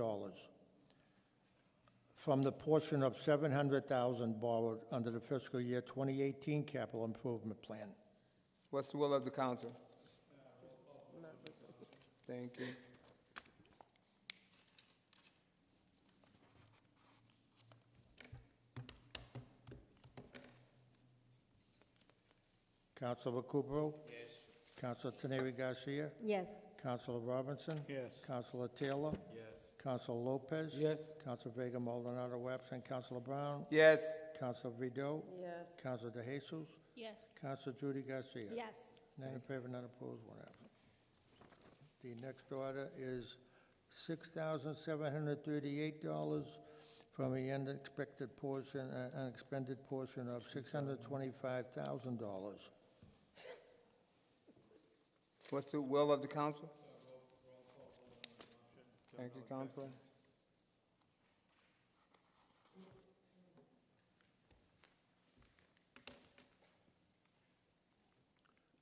dollars from the portion of seven hundred thousand borrowed under the fiscal year twenty eighteen capital improvement plan. What's the will of the council? Thank you. Councilor Recupero? Yes. Councilor Teneri Garcia? Yes. Councilor Robinson? Yes. Councilor Taylor? Yes. Councilor Lopez? Yes. Councilor Vega Maldonado absent. Councilor Brown? Yes, Councilor Vido? Yes. Councilor De Jesus? Yes. Councilor Judy Garcia? Yes. None in favor, none opposed, one absent. The next order is six thousand seven hundred thirty-eight dollars from the unexpected portion, uh, unexpended portion of six hundred twenty-five thousand dollars. what's the will of the council? Thank you, Counselor.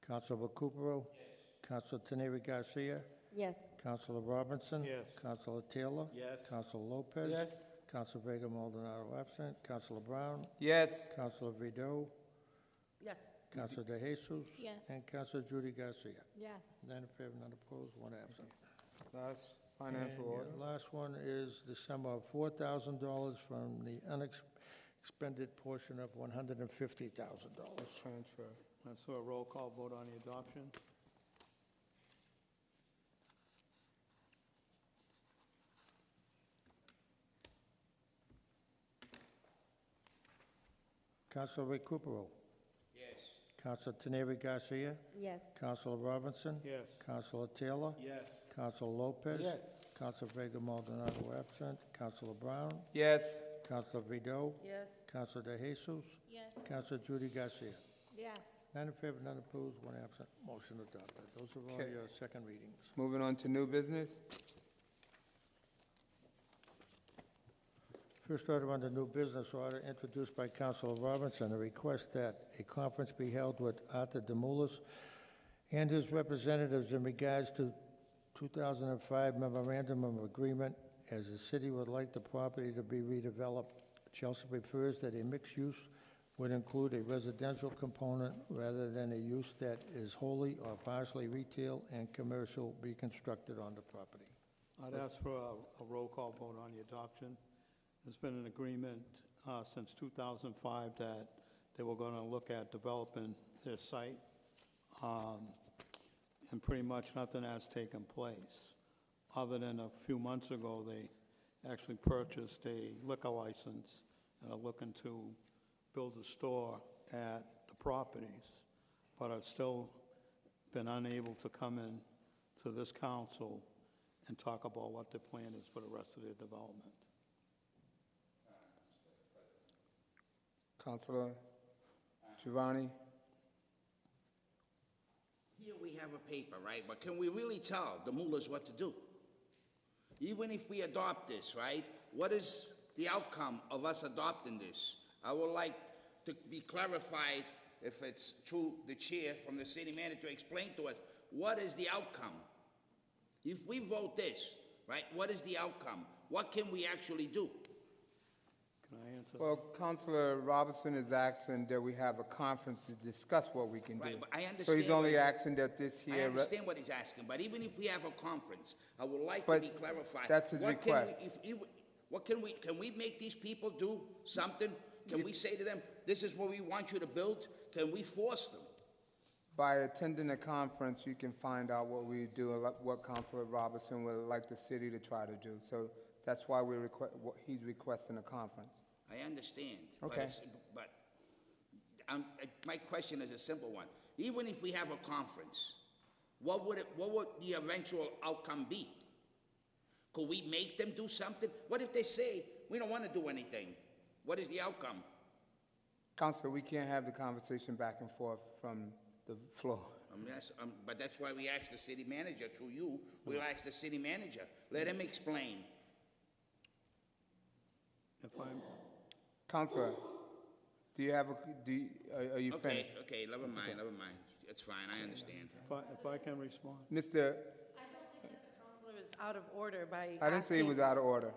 Councilor Recupero? Yes. Councilor Teneri Garcia? Yes. Councilor Robinson? Yes. Councilor Taylor? Yes. Councilor Lopez? Yes. Councilor Vega Maldonado absent. Councilor Brown? Yes, Councilor Vido? Yes. Councilor De Jesus? Yes. And Councilor Judy Garcia? Yes. None in favor, none opposed, one absent. that's And uh, financial your order. Last one is the sum of four thousand dollars from the unexpended portion of one hundred and fifty thousand dollars. Transfer. And so a roll call vote on the adoption? Counselor Recupero? Yes. Counselor Teneri Garcia? Yes. Counselor Robinson? Yes. Counselor Taylor? Yes. Counselor Lopez? Yes. Counselor Vega Maldonado absent. Counselor Brown? Yes, Counselor Vido? Yes. Counselor De Jesus? Yes. Counselor Judy Garcia? Yes. None in favor, none opposed, one absent. Motion adopted. Those are all Okay. your second readings. moving on to new business. First order under new business order introduced by Councilor Robinson, a request that a conference be held with Arthur Demoulas and his representatives in regards to 2005 memorandum of agreement as the city would like the property to be redeveloped. Chelsea prefers that a mixed use would include a residential component rather than a use that is wholly or partially retail and commercial be constructed on the property. I'd ask for a, a roll call vote on the adoption. There's been an agreement, uh, since two thousand five that they were gonna look at developing their site. Um, and pretty much nothing has taken place, other than a few months ago, they actually purchased a liquor license and are looking to build a store at the properties, but are still been unable to come in to this council and talk about what their plan is for the rest of their development. Counselor Giovanni? Here we have a paper, right, but can we really tell the mullahs what to do? Even if we adopt this, right, what is the outcome of us adopting this? I would like to be clarified, if it's true, the chair from the city manager explain to us, what is the outcome? If we vote this, right, what is the outcome? What can we actually do? Can I answer? Well, Counselor Robinson is asking that we have a conference to discuss what we can do. Right, but So I he's understand only what- asking that this I here. re- understand what he's asking, but even if we have a conference, I would like to But be clarified. that's his What can we- request. if you- What can we, can we make these people do something? Can we say to them, this is what we want you to build? Can we force them? By attending a conference, you can find out what we do, and like- what Counselor Robinson would like the city to try to do. So that's why we request, he's requesting a conference. I understand. but Okay. it's- But, um, uh, my question is a simple one. Even if we have a conference, what would it, what would the eventual outcome be? Could we make them do something? What if they say, we don't want to do anything? What is the outcome? Counselor, we can't have the conversation back and forth from the floor. Um, yes, um, but that's why we asked the city manager, through you, we'll ask the city manager, let him explain. If I'm, Counselor, do you have, a do, you- are are you Okay, finished? okay, never mind, never mind, it's fine, I understand. if I, if I can respond, Mr., I don't think that the counselor is out of order by I didn't say he asking- was out of order.